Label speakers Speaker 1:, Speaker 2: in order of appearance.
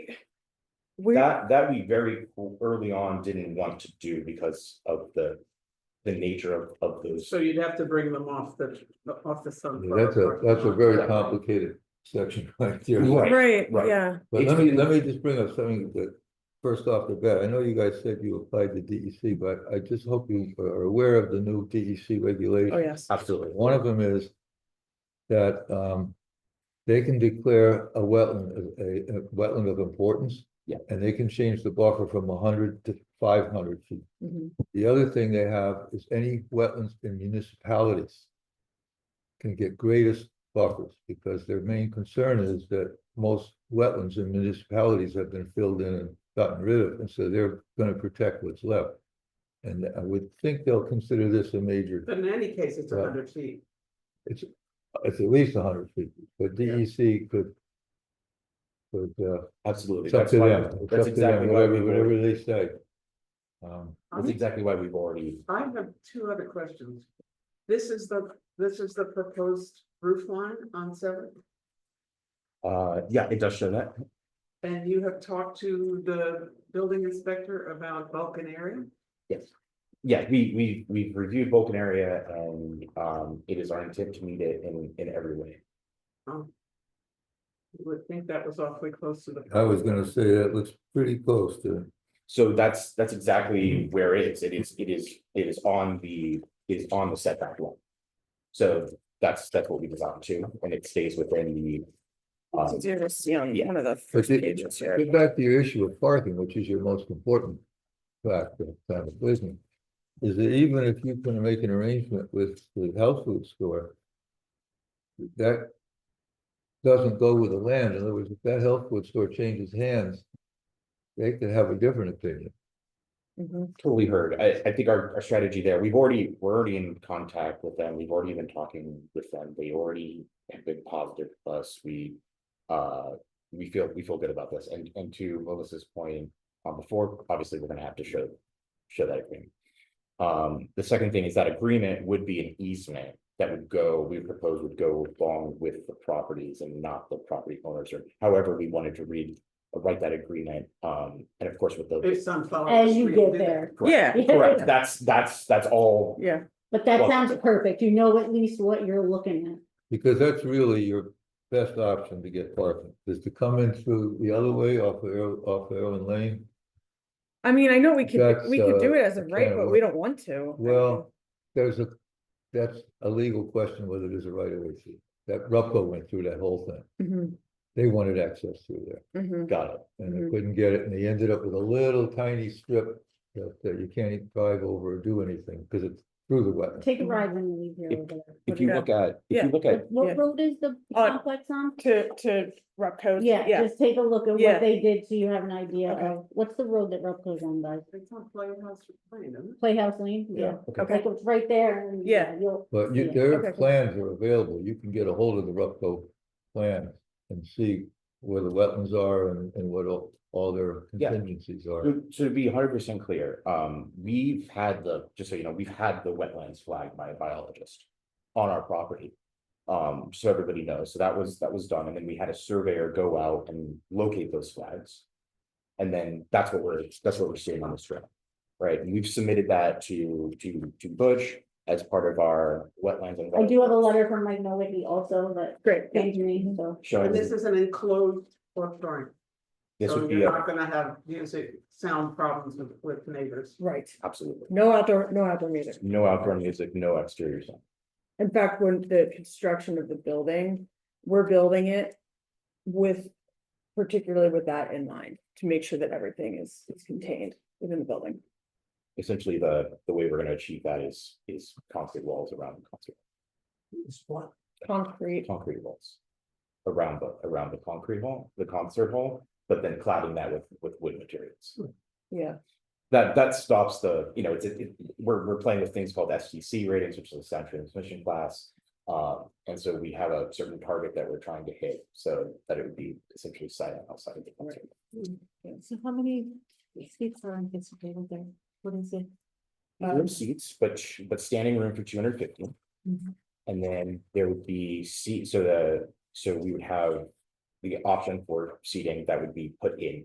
Speaker 1: Where,
Speaker 2: That, that we very early on didn't want to do because of the. The nature of, of those,
Speaker 3: So you'd have to bring them off the, off the sun.
Speaker 4: That's a, that's a very complicated section right there.
Speaker 2: Right,
Speaker 1: right,
Speaker 2: right.
Speaker 1: yeah,
Speaker 4: But let me, let me just bring up something that, first off the bat, I know you guys said you applied to DEC, but I just hope you are aware of the new DEC
Speaker 1: oh,
Speaker 4: regulations.
Speaker 1: yes,
Speaker 2: absolutely,
Speaker 4: One of them is that, um, they can declare a wetland, as a, a wetland of importance.
Speaker 2: Yeah.
Speaker 4: And they can change the buffer from hundred to five hundred feet.
Speaker 1: Mhm.
Speaker 4: The other thing they have is any wetlands in municipalities can get greatest buffers, because their main concern is that most wetlands in municipalities have been filled in and gotten rid of, and so they're gonna protect what's left. And I would think they'll consider this a major,
Speaker 3: But in any case, it's a hundred feet.
Speaker 4: it's, it's at least hundred feet, but
Speaker 3: Yeah.
Speaker 4: DEC could could, uh,
Speaker 2: absolutely.
Speaker 4: it's up
Speaker 2: That's
Speaker 4: to
Speaker 2: why-
Speaker 4: them, it's up
Speaker 2: That's
Speaker 4: to them,
Speaker 2: exactly why
Speaker 4: whatever,
Speaker 2: we've
Speaker 4: whatever
Speaker 2: already,
Speaker 4: they say. Um,
Speaker 2: that's
Speaker 3: I'm-
Speaker 2: exactly why we've already,
Speaker 3: I have two other questions. This is the, this is the proposed roof line on seven,
Speaker 2: uh, yeah, it does show that.
Speaker 3: and you have talked to the building inspector about Vulcan area?
Speaker 2: Yeah, we, we, we've reviewed Vulcan area and, um, it is our intent to meet it in, in every way.
Speaker 3: Um, You would think that was awfully close to the.
Speaker 4: I was gonna say that looks pretty close to
Speaker 2: So that's, that's exactly where it is, it is, it is, it is on the, it is on the setback line. So that's, that's what we designed to, and it stays within the. um,
Speaker 1: It's just, you know,
Speaker 2: yeah.
Speaker 1: one of the
Speaker 4: But
Speaker 1: first
Speaker 4: the-
Speaker 1: pages here.
Speaker 4: Get back to your issue of parking, which is your most important factor of town of business. Is that even if you can make an arrangement with the health food store. That. Doesn't go with the land, in other words, if that health food store changes hands. They could have a different opinion.
Speaker 1: Mhm.
Speaker 2: Totally heard. I, I think our, our strategy there, we've already, we're already in contact with them. We've already been talking with them. They already have been positive with us. We. Uh, we feel, we feel good about this. And, and to Melissa's point, uh, before, obviously, we're gonna have to show, show that agreement. Um, the second thing is that agreement would be an easement that would go, we propose would go along with the properties and not the property owners or however we wanted to read. Write that agreement, um, and of course with the.
Speaker 3: If sunflower.
Speaker 5: As you
Speaker 3: Street
Speaker 5: get
Speaker 3: did that.
Speaker 5: there.
Speaker 2: Correct.
Speaker 1: Yeah,
Speaker 2: Correct, that's, that's, that's all,
Speaker 1: yeah,
Speaker 5: But that
Speaker 2: Well-
Speaker 5: sounds perfect. You know at least what you're looking at.
Speaker 4: Because that's really your best option to get parking, is to come in through the other way off of, Erwin- off of Erwin Lane.
Speaker 1: I mean, I know we could,
Speaker 4: That's,
Speaker 1: we could do
Speaker 4: uh,
Speaker 1: it as a
Speaker 4: kind
Speaker 1: right,
Speaker 4: of
Speaker 1: but
Speaker 4: what-
Speaker 1: we don't want to. I
Speaker 4: Well, There's a, that's a legal question whether there's a right of way through. That Rupco went through that whole thing.
Speaker 1: mean,
Speaker 4: They wanted access through there
Speaker 1: mhm, mhm.
Speaker 2: got it,
Speaker 4: and they
Speaker 1: Mhm.
Speaker 4: couldn't get it and they ended up with a little tiny strip that, that you can't even drive over or do anything because it's through the wetland.
Speaker 5: Take a ride when you leave here.
Speaker 2: If-
Speaker 5: over there.
Speaker 2: if you
Speaker 1: Okay.
Speaker 2: look at, if you look at,
Speaker 5: What- What
Speaker 1: Yeah.
Speaker 5: road is the
Speaker 1: Uh,
Speaker 5: complex on?
Speaker 1: To, to Repco.
Speaker 5: Yeah,
Speaker 1: Yeah,
Speaker 5: just take a look at
Speaker 1: Yeah.
Speaker 5: what they did so you have an idea
Speaker 1: Okay.
Speaker 5: of, what's the road that Repco's on, guys?
Speaker 3: It's on Playhouse Lane, isn't it?
Speaker 5: Playhouse Lane?
Speaker 2: yeah, okay,
Speaker 1: okay,
Speaker 5: Like it's right there and.
Speaker 1: Yeah.
Speaker 5: You'll.
Speaker 4: But
Speaker 5: see
Speaker 4: you,
Speaker 5: it.
Speaker 4: their
Speaker 1: Okay.
Speaker 4: plans are available. You can get a hold of the Rupco plans and see where the wetlands are and, and what all, all their
Speaker 2: Yeah.
Speaker 4: contingencies are.
Speaker 2: So so to be hundred percent clear, um, we've had the, just so you know, we've had the wetlands flagged by a biologist on our property. Um, so everybody knows, so that was, that was done, and then we had a surveyor go out and locate those flags. And then that's what we're, that's what we're seeing on this trip, right? And we've submitted that to, to, to Bush as part of our wetlands and.
Speaker 5: I do have a letter from Mike Nowicki also that
Speaker 1: great. yeah.
Speaker 5: thanked me, so.
Speaker 2: Showing,
Speaker 3: And this is an enclosed auditorium.
Speaker 2: this
Speaker 3: So
Speaker 2: would
Speaker 3: you're
Speaker 2: be, a-
Speaker 3: not gonna have music, sound problems with, with neighbors.
Speaker 1: Right,
Speaker 2: absolutely,
Speaker 1: no outdoor, no outdoor music.
Speaker 2: no outdoor music, no exterior sound.
Speaker 1: In fact, when the construction of the building, we're building it with, particularly with that in mind, to make sure that everything is, is contained within the building.
Speaker 2: essentially the, the way we're gonna achieve that is, is concrete walls around, concrete,
Speaker 1: Concrete,
Speaker 2: concrete walls. Around the, around the concrete hall, the concert hall, but then cladding that with, with wood materials.
Speaker 1: yeah,
Speaker 2: That, that stops the, you know, it's, it, we're, we're playing with things called SGC ratings, which is the sound transmission class. Um, and so we have a certain target that we're trying to hit, so that it would be essentially silent outside of the concert.
Speaker 5: So how many seats are anticipated there? What is it?
Speaker 1: Um,
Speaker 2: Room seats, but, sh- but standing room for two hundred fifty.
Speaker 5: Mhm.
Speaker 2: And then there would be seat, so the, so we would have the option for seating that would be put in